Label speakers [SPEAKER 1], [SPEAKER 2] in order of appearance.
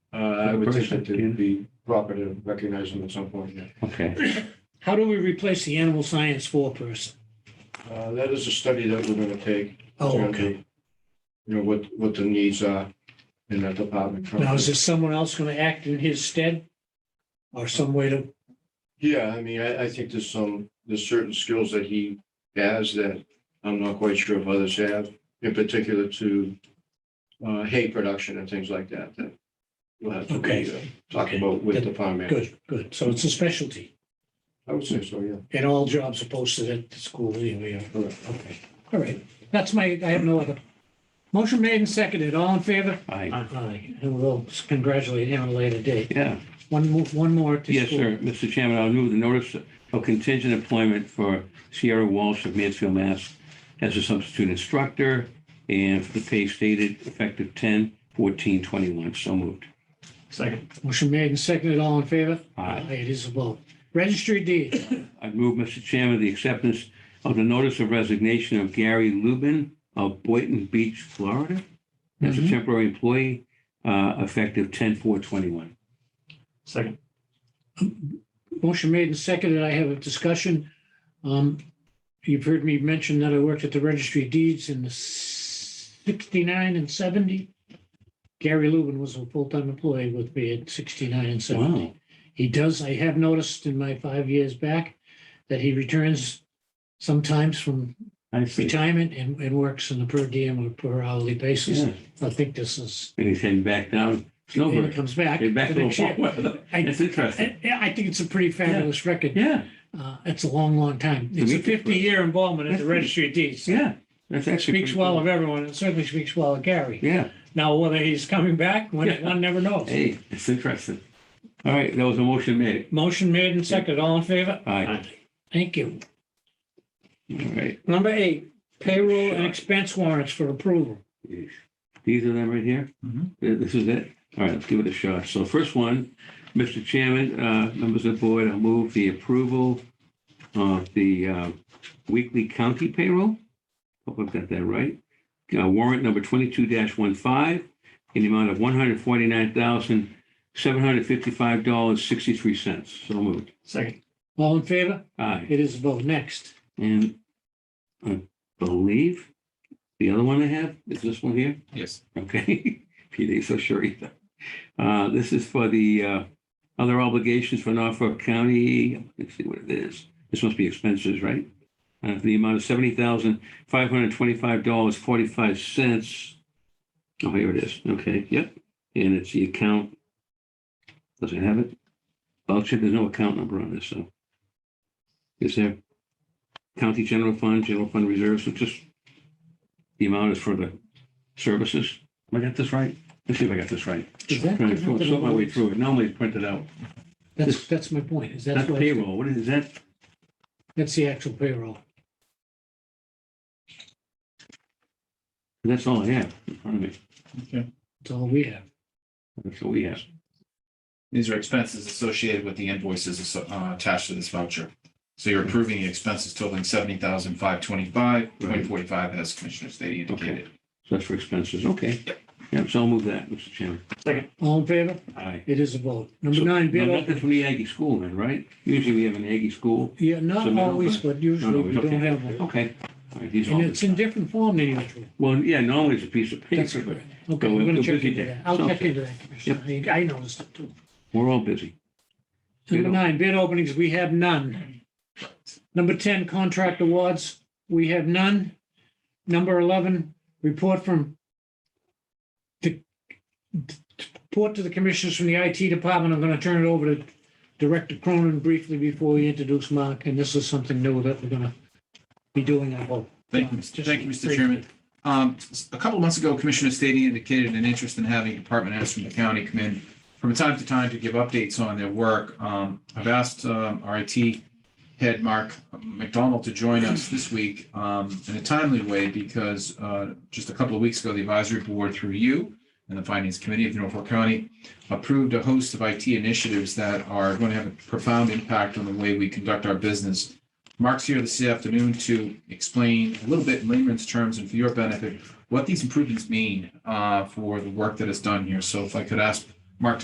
[SPEAKER 1] Uh, I would think
[SPEAKER 2] person,
[SPEAKER 1] that it'd be proper to recognize them at some point, yeah.
[SPEAKER 2] Okay,
[SPEAKER 3] How do we replace the animal science four person?
[SPEAKER 1] Uh, that is a study that we're gonna take. It's
[SPEAKER 3] Oh,
[SPEAKER 1] gonna
[SPEAKER 3] okay.
[SPEAKER 1] be, You know, what, what the needs are in that department.
[SPEAKER 3] Now, is there someone else going to act in his stead? Or some way to,
[SPEAKER 1] Yeah, I mean, I, I think there's some, there's certain skills that he has that I'm not quite sure if others have, in particular to uh, hay production and things like that, that we'll have to
[SPEAKER 3] Okay.
[SPEAKER 1] uh, talk
[SPEAKER 3] Okay.
[SPEAKER 1] about with the
[SPEAKER 3] Good.
[SPEAKER 1] farm manager.
[SPEAKER 3] good, good. So it's a specialty.
[SPEAKER 1] I would say so, yeah.
[SPEAKER 3] And all jobs are posted at the school anyway.
[SPEAKER 1] Correct.
[SPEAKER 3] Okay, all right. That's my, I have no other. Motion made and seconded. All in favor?
[SPEAKER 2] I,
[SPEAKER 3] Aye. And we'll congratulate him at a later date.
[SPEAKER 2] yeah.
[SPEAKER 3] One, mo- one more. to
[SPEAKER 2] Yes,
[SPEAKER 3] school.
[SPEAKER 2] sir. Mr. Chairman, I'll move the notice of contingent employment for Sierra Walsh of Mansfield, Mass. as a substitute instructor and for the pay stated effective 10, 14, 21. So moved.
[SPEAKER 4] Second.
[SPEAKER 3] Motion made and seconded. All in favor?
[SPEAKER 2] Aye.
[SPEAKER 3] It is a vote. Registry deed.
[SPEAKER 2] I move, Mr. Chairman, the acceptance of the notice of resignation of Gary Lubin of Boynton Beach, Florida, as a
[SPEAKER 3] Mhm.
[SPEAKER 2] temporary employee, uh, effective 10, 4, 21.
[SPEAKER 4] Second.
[SPEAKER 3] Motion made and seconded. I have a discussion. Um, You've heard me mention that I worked at the registry of deeds in the 69 and 70. Gary Lubin was a full-time employee with me at 69 and 70.
[SPEAKER 2] Wow.
[SPEAKER 3] He does, I have noticed in my five years back that he returns sometimes from
[SPEAKER 2] I see.
[SPEAKER 3] retirement and, and works on a per diem or per hourly basis.
[SPEAKER 2] Yeah.
[SPEAKER 3] I think this is,
[SPEAKER 2] And he's heading back down
[SPEAKER 3] and he
[SPEAKER 2] Snowbird.
[SPEAKER 3] comes back.
[SPEAKER 2] Heading back
[SPEAKER 3] the
[SPEAKER 2] to
[SPEAKER 3] next year.
[SPEAKER 2] the.
[SPEAKER 3] I-
[SPEAKER 2] That's interesting.
[SPEAKER 3] I I think it's a pretty fabulous record.
[SPEAKER 2] Yeah,
[SPEAKER 3] Uh, It's a long, long time.
[SPEAKER 2] To
[SPEAKER 3] It's a
[SPEAKER 2] me, it's-
[SPEAKER 3] 50-year involvement at the
[SPEAKER 2] That's pretty-
[SPEAKER 3] registry of deeds.
[SPEAKER 2] yeah. That's actually.
[SPEAKER 3] Speaks
[SPEAKER 2] pretty
[SPEAKER 3] well
[SPEAKER 2] cool.
[SPEAKER 3] of everyone, and certainly speaks well of Gary.
[SPEAKER 2] Yeah,
[SPEAKER 3] Now, whether he's coming back, one
[SPEAKER 2] Yeah.
[SPEAKER 3] one never knows.
[SPEAKER 2] hey, it's interesting. All right, that was a motion made.
[SPEAKER 3] Motion made and seconded. All in favor?
[SPEAKER 2] All right,
[SPEAKER 4] Aye.
[SPEAKER 3] Thank you.
[SPEAKER 2] all right.
[SPEAKER 3] Number eight, payroll and expense warrants for approval.
[SPEAKER 2] Yeesh. These are them right here?
[SPEAKER 4] Mhm.
[SPEAKER 2] Th- This is it? All right, let's give it a shot. So first one, Mr. Chairman, uh, members of the board, I'll move the approval of the uh, weekly county payroll. Hope I've got that right. Uh, Warrant number 22-15 in the amount of $149,755.63. So moved.
[SPEAKER 4] Second.
[SPEAKER 3] All in favor?
[SPEAKER 2] Aye.
[SPEAKER 3] It is a vote. Next.
[SPEAKER 2] Uh, And I believe the other one I have is this one here.
[SPEAKER 4] Yes.
[SPEAKER 2] Okay, Pete ain't so sure either. Uh, This is for the uh, other obligations for Norfolk County. Let's see what it is. This must be expenses, right? Uh, For the amount of seventy thousand, five hundred twenty-five dollars, forty-five cents. Oh, here it is. Okay, yep. And it's the account. Does it have it? Voucher, there's no account number on this, so. Is there? County General Fund, General Fund Reserves, so just the amount is for the services. Am I got this right? Let's see if I got this right.
[SPEAKER 3] Is that-
[SPEAKER 2] Trying to sort sort my way through it. Normally it's printed out.
[SPEAKER 3] That's, that's my point. Is that's
[SPEAKER 2] That's
[SPEAKER 3] what,
[SPEAKER 2] payroll. What is is that?
[SPEAKER 3] that's the actual payroll.
[SPEAKER 2] That's all I have in front of me.
[SPEAKER 4] Okay.
[SPEAKER 3] That's all we have.
[SPEAKER 2] That's what we have.
[SPEAKER 5] These are expenses associated with the invoices asso- uh, attached to this voucher. So you're approving the expenses totaling seventy thousand five twenty-five, point forty-five, as Commissioner Stady indicated.
[SPEAKER 2] So that's for expenses. Okay. Yeah, so I'll move that, Mr. Chairman.
[SPEAKER 3] All in favor?
[SPEAKER 2] Aye.
[SPEAKER 3] It is a vote.
[SPEAKER 2] So-
[SPEAKER 3] Number nine,
[SPEAKER 2] Now,
[SPEAKER 3] bid opening.
[SPEAKER 2] Nothing from the Aggie school then, right? Usually we have an Aggie school.
[SPEAKER 3] Yeah, not
[SPEAKER 2] Submit
[SPEAKER 3] always,
[SPEAKER 2] open.
[SPEAKER 3] but usually
[SPEAKER 2] No, no,
[SPEAKER 3] we
[SPEAKER 2] it's
[SPEAKER 3] don't
[SPEAKER 2] okay.
[SPEAKER 3] have one.
[SPEAKER 2] Okay. All right, these are all
[SPEAKER 3] And it's in different form than usual.
[SPEAKER 2] Well, yeah, normally it's a piece of
[SPEAKER 3] That's
[SPEAKER 2] paper, but
[SPEAKER 3] correct. Okay,
[SPEAKER 2] we're
[SPEAKER 3] we're going to check
[SPEAKER 2] busy
[SPEAKER 3] into
[SPEAKER 2] there.
[SPEAKER 3] that. I'll
[SPEAKER 2] Sounds
[SPEAKER 3] check
[SPEAKER 2] good.
[SPEAKER 3] into that, Commissioner. I I noticed it too.
[SPEAKER 2] we're all busy.
[SPEAKER 3] Number
[SPEAKER 2] Bid
[SPEAKER 3] nine, bid openings, we have none. Number 10, contract awards, we have none. Number 11, report from the, report to the commissioners from the IT department. I'm going to turn it over to Director Cronin briefly before we introduce Mark, and this is something new that we're going to be doing, I hope.
[SPEAKER 5] Thank you, Mr. Thank you, Mr. Chairman. Um, s- a couple months ago, Commissioner Stady indicated an interest in having department heads from the county come in from time to time to give updates on their work. Um, I've asked, um, our IT head Mark McDonald to join us this week, um, in a timely way because, uh, just a couple of weeks ago, the advisory board through you and the finance committee of Norfolk County approved a host of IT initiatives that are going to have a profound impact on the way we conduct our business Mark's here this afternoon to explain a little bit in layman's terms and for your benefit, what these improvements mean uh, for the work that is done here. So if I could ask